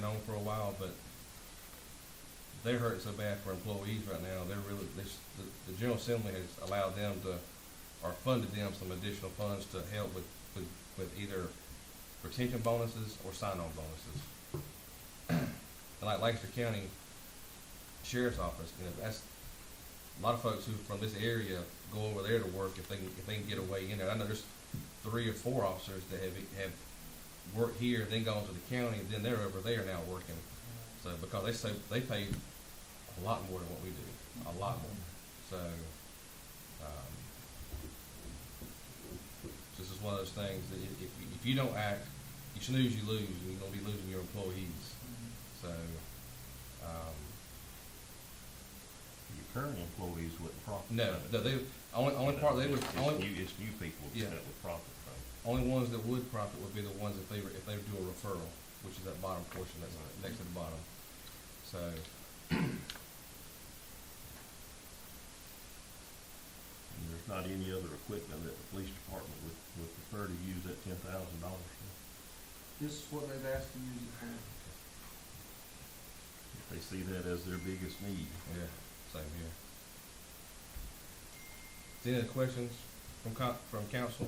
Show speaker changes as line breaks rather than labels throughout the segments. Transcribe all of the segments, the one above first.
on for a while, but they're hurting so bad for employees right now, they're really, this, the, the General Assembly has allowed them to, or funded them some additional funds to help with, with, with either retention bonuses or sign-on bonuses. And like Lancaster County Sheriff's Office, you know, that's, a lot of folks who from this area go over there to work if they can, if they can get away in there. I know there's three or four officers that have, have worked here, then gone to the county, then they're over there now working. So because they say they pay a lot more than what we do, a lot more. So um, this is one of those things that if, if you- if you don't act, you snooze, you lose, and you're gonna be losing your employees. So um,
Your current employees wouldn't profit.
No,
from it.
no, they, only, only part, they would,
It's
only,
new, it's new people
Yeah.
that would profit from it.
only ones that would profit would be the ones if they, were- if they do a referral, which is that bottom portion that's next to the bottom. So,
And there's not any other equipment that the police department would, would prefer to use that ten thousand dollars for.
This is what they've asked to use it for.
If they see that as their biggest need.
yeah, same here. Is there Any other questions from co- from council,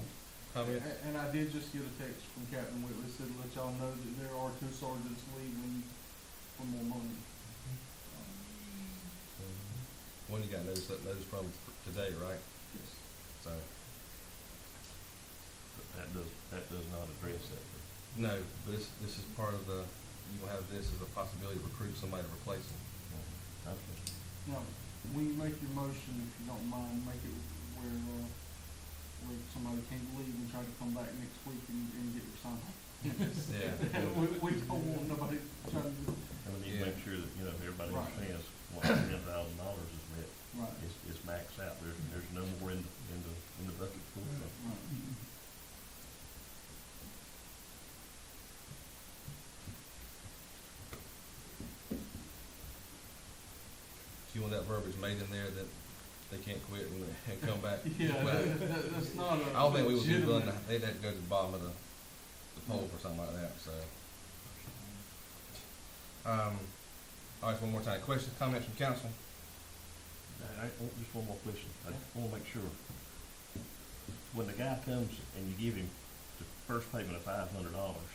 comment?
A- And I did just get a text from Captain Whitley, said, let y'all know that there are two sergeants leaving for more money.
One Mm-hmm. you got notice, notice from today, right?
Yes.
So,
But that does, that does not address that.
no, but this, this is part of the, you will have this as a possibility to recruit somebody to replace them.
Okay.
Now, when you make your motion, if you don't mind, make it where, uh, where somebody can't leave and try to come back next week and, and get your sign.
Yeah.
We, we don't want nobody trying to,
And we need
Yeah.
to make sure that, you know, everybody
Right.
understands what ten thousand dollars is meant.
right,
It's, it's maxed out. There's, there's no more in, in the, in the bucket pool.
right.
Do you want that verbiage made in there that they can't quit and, and come back?
Yeah,
Well,
that, that- that's not a.
I don't think we would be
legitimate-
willing, to- they'd have to go to the bottom of the, the poll for something like that, so. Um, all right, one more time, questions, comments from council?
I, I, oh, just one more question, I wanna make sure. When the guy comes and you give him the first payment of five hundred dollars,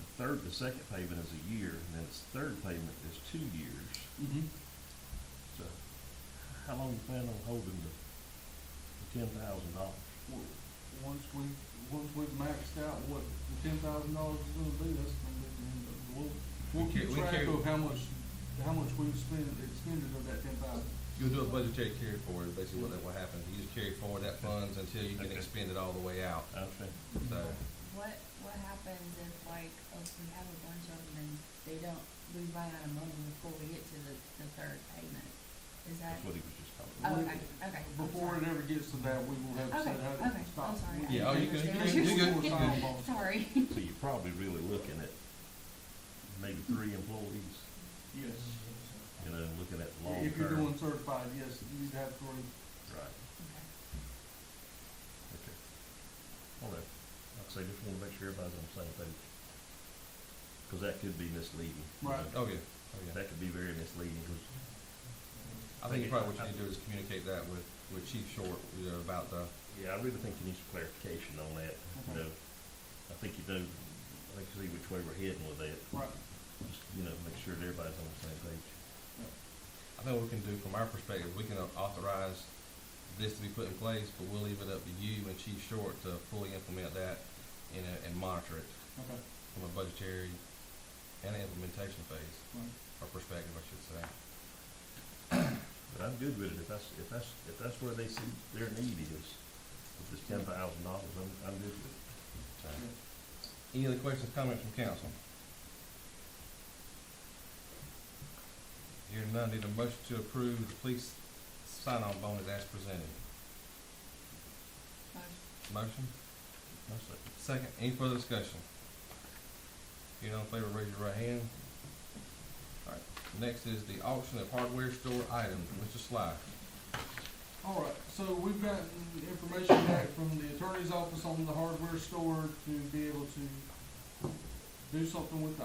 the third, the second payment is a year, and then his third payment is two years,
Mhm.
so how long you plan on holding the, the ten thousand dollars?
W- Once we, once we've maxed out what the ten thousand dollars is gonna be, that's gonna be the end of it. We'll, we'll
Okay,
keep
we
track
can-
of how much, how much we've spent, expended of that ten thousand.
You'll do a budgetary carry forward, basically what that will happen, you just carry forward that funds until you can
Okay.
expend it all the way out,
I understand,
so.
What, what happens if like, if we have a bunch of them and they don't, we run out of money before we get to the, the third payment? Is
that's
that,
what he was just talking
oh,
about.
okay, okay. I'm
Before it
sorry.
ever gets to that, we will have
Okay,
said how
okay,
to stop.
I'm sorry. I
Yeah, oh, you
didn't
good, you
understand what
good,
were
you
saying.
good.
Sorry.
So you're probably really looking at maybe three employees,
Yes.
you know, looking at long term.
If you're doing certified, yes, you'd have three.
Right. Okay. All right. Like I say, just wanna make sure everybody's on the same page. Cause that could be misleading. you
Right.
know.
Oh, yeah, oh, yeah.
That could be very misleading, cause
I think probably what you need to do is communicate that with, with Chief Short, you know, about the,
Yeah, I really think you need some clarification on that, you
Okay.
know. I think you know, I think you see which way we're heading with that.
Right.
Just, you know, make sure that everybody's on the same page.
I think what we can do from our perspective, we can authorize this to be put in place, but we'll leave it up to you and Chief Short to fully implement that and, uh, and monitor it
Okay.
from a budgetary and implementation phase,
Right.
or perspective, I should say.
But I'm good with it if that's, if that's, if that's where they see their need is, if it's ten thousand dollars, I'm, I'm good with it.
So,
Yeah.
Any other questions, comments from council? Hearing none, need a motion to approve the police sign-on bonus as presented.
Motion.
Motion?
That's it.
Second, any further discussion? You know, in favor, raise your right hand. Alright, next is the auction of hardware store items, Mr. Sly.
All right, so we've gotten information back from the attorney's office on the hardware store to be able to do something with the